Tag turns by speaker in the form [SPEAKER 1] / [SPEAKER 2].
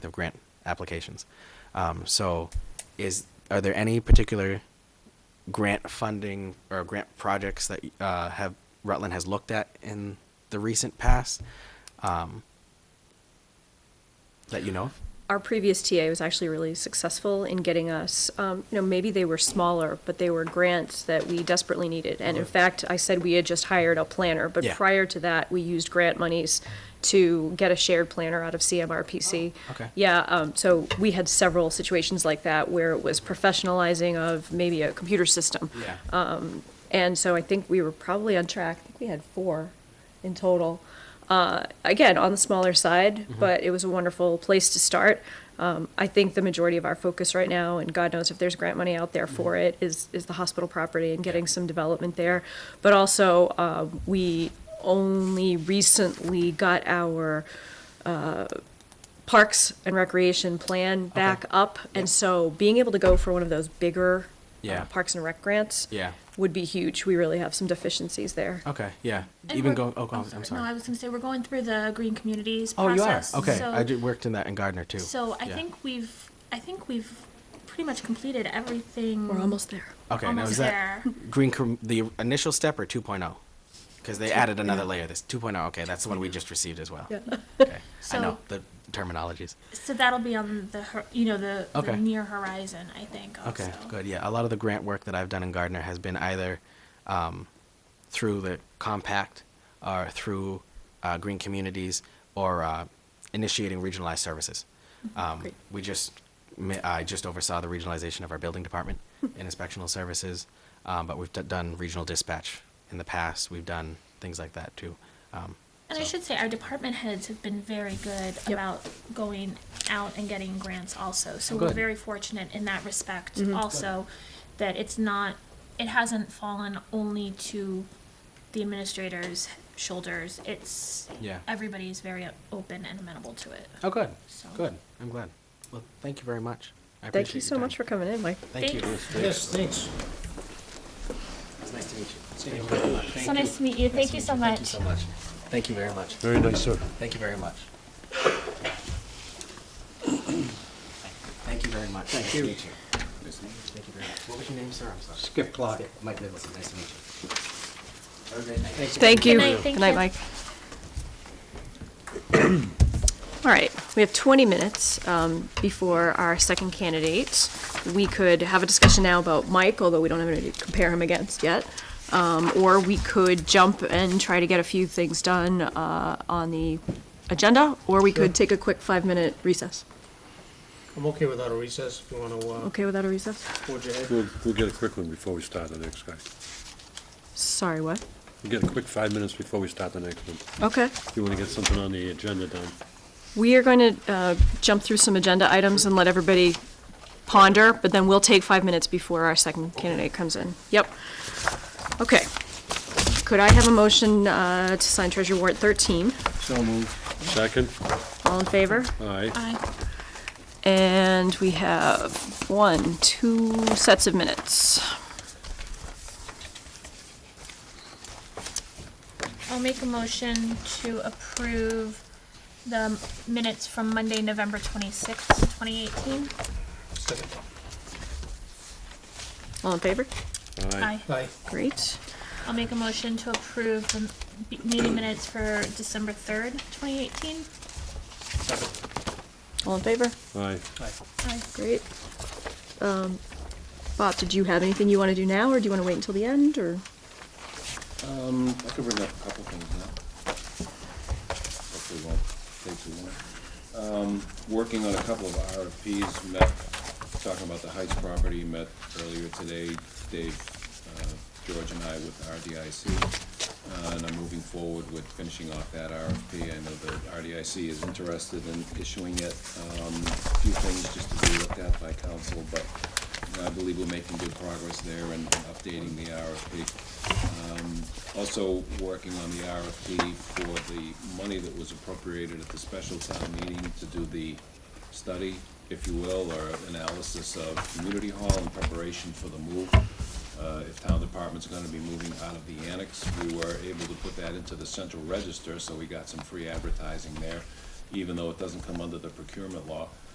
[SPEAKER 1] the grant applications. Um, so is, are there any particular grant funding or grant projects that uh, have Rutland has looked at in the recent past um, that you know of?
[SPEAKER 2] Our previous TA was actually really successful in getting us, um, you know, maybe they were smaller, but they were grants that we desperately needed. And in fact, I said we had just hired a planner, but
[SPEAKER 1] Yeah.
[SPEAKER 2] prior to that, we used grant monies to get a shared planner out of CMRPC.
[SPEAKER 1] Oh, okay.
[SPEAKER 2] Yeah, um, so we had several situations like that where it was professionalizing of maybe a computer system.
[SPEAKER 1] Yeah.
[SPEAKER 3] Uh,
[SPEAKER 2] And so I think we were probably on track. I think we had four in total. Uh, again, on the smaller side, but it was a wonderful place to start. Um, I think the majority of our focus right now, and God knows if there's grant money out there for it, is is the hospital property and getting some development there. But also, uh, we only recently got our uh, parks and recreation plan back up. And so being able to go for one of those bigger uh,
[SPEAKER 1] Yeah.
[SPEAKER 2] parks and rec grants
[SPEAKER 1] Yeah.
[SPEAKER 2] would be huge. We really have some deficiencies there.
[SPEAKER 1] okay. Yeah.
[SPEAKER 3] And
[SPEAKER 1] Even
[SPEAKER 3] we're-
[SPEAKER 1] go. Oh, go on, I'm
[SPEAKER 3] No, I
[SPEAKER 1] sorry.
[SPEAKER 3] was going to say, we're going through the Green Communities
[SPEAKER 1] Oh, you are.
[SPEAKER 3] process.
[SPEAKER 1] Okay.
[SPEAKER 3] So-
[SPEAKER 1] I did, worked in that in Gardner too.
[SPEAKER 3] So I
[SPEAKER 1] Yeah.
[SPEAKER 3] think we've, I think we've pretty much completed everything.
[SPEAKER 2] We're almost there.
[SPEAKER 1] Okay. now
[SPEAKER 3] almost
[SPEAKER 1] is that
[SPEAKER 3] there.
[SPEAKER 1] green com- the initial step or 2.0? Because they added another layer. This 2.0. Okay, that's the one we just received as well.
[SPEAKER 2] Yeah.
[SPEAKER 1] Okay. I
[SPEAKER 3] So-
[SPEAKER 1] know the terminologies.
[SPEAKER 3] So that'll be on the, hor- you know, the,
[SPEAKER 1] Okay.
[SPEAKER 3] the near horizon, I think. Also.
[SPEAKER 1] Okay, good. Yeah, a lot of the grant work that I've done in Gardner has been either um, through the compact or through uh, green communities or uh, initiating regionalized services. Um,
[SPEAKER 2] Mm-hmm. Great.
[SPEAKER 1] we just, ma- I just oversaw the regionalization of our building department and inspectional services, um, but we've d- done regional dispatch in the past. We've done things like that too. Um,
[SPEAKER 3] And I
[SPEAKER 1] so-
[SPEAKER 3] should say, our department heads have been very good about going out and getting grants also. So we're
[SPEAKER 1] Oh, Good. Mm-hmm.
[SPEAKER 3] very fortunate in that respect also, that it's not, it hasn't fallen only to the administrator's shoulders. It's,
[SPEAKER 1] Yeah.
[SPEAKER 3] everybody's very open and amenable to it.
[SPEAKER 1] Oh, good.
[SPEAKER 3] So-
[SPEAKER 1] Good. I'm glad. Well, thank you very much. I
[SPEAKER 2] Thank you
[SPEAKER 1] appreciate
[SPEAKER 2] so
[SPEAKER 1] your
[SPEAKER 2] much for
[SPEAKER 1] time.
[SPEAKER 2] coming in, Mike.
[SPEAKER 1] Thank you.
[SPEAKER 3] Thanks.
[SPEAKER 4] Yes, thanks.
[SPEAKER 1] It's nice to meet you.
[SPEAKER 3] So nice to meet you. Thank you so
[SPEAKER 1] Thank you
[SPEAKER 3] much.
[SPEAKER 1] so much. Thank you very much.
[SPEAKER 4] Very nice, sir.
[SPEAKER 1] Thank you very much. Thank you very much. Thank you. Thank you very much. What was your name, sir? I'm sorry.
[SPEAKER 4] Skip clock.
[SPEAKER 1] Skip. Mike Nicholson, nice to meet you. Have a great night.
[SPEAKER 2] Thank you.
[SPEAKER 3] Good night, thank you.
[SPEAKER 2] Mike. All right, we have 20 minutes um, before our second candidate. We could have a discussion now about Mike, although we don't have anybody to compare him against yet. Um, Or we could jump and try to get a few things done uh, on the agenda, or we could take a quick five-minute recess.
[SPEAKER 4] I'm okay without a recess if you uh, want to
[SPEAKER 2] Okay with that, a recess?
[SPEAKER 4] forge ahead.
[SPEAKER 5] We'll, we'll get a quick one before we start the next guy.
[SPEAKER 2] Sorry, what?
[SPEAKER 5] We'll get a quick five minutes before we start the next one.
[SPEAKER 2] Okay.
[SPEAKER 5] You want to get something on the agenda done?
[SPEAKER 2] We are going to uh, jump through some agenda items and let everybody ponder, but then we'll take five minutes before our second candidate comes in. Yep. Okay. Could I have a motion uh, to sign Treasury Warrant 13?
[SPEAKER 5] Second?
[SPEAKER 2] All in favor?
[SPEAKER 5] Aye.
[SPEAKER 3] Bye.
[SPEAKER 2] And we have one, two sets of minutes.
[SPEAKER 3] I'll make a motion to approve the minutes from Monday, November twenty-sixth, twenty eighteen.
[SPEAKER 4] Second.
[SPEAKER 2] All in favor?
[SPEAKER 5] Aye.
[SPEAKER 4] Aye.
[SPEAKER 2] Great.
[SPEAKER 3] I'll make a motion to approve the b- meeting minutes for December third, twenty eighteen.
[SPEAKER 4] Second.
[SPEAKER 2] All in favor?
[SPEAKER 5] Aye.
[SPEAKER 4] Aye.
[SPEAKER 2] Great. Um, Bob, did you have anything you want to do now, or do you want to wait until the end, or?
[SPEAKER 6] Um, I could bring up a couple things now. Hopefully it won't take too long. Um, working on a couple of RFPs, met, talking about the Heights property, met earlier today, Dave, uh, George and I with RDIC. Uh, and I'm moving forward with finishing off that RFP. I know that RDIC is interested in issuing it. Um, a few things just to be looked at by council, but I believe we're making good progress there and updating the RFP. Um, Also working on the RFP for the money that was appropriated at the special town meeting to do the study, if you will, or analysis of community hall in preparation for the move. Uh, If town departments are gonna be moving out of the annex, we were able to put that into the central register, so we got some free advertising there. even though it doesn't come under the procurement law.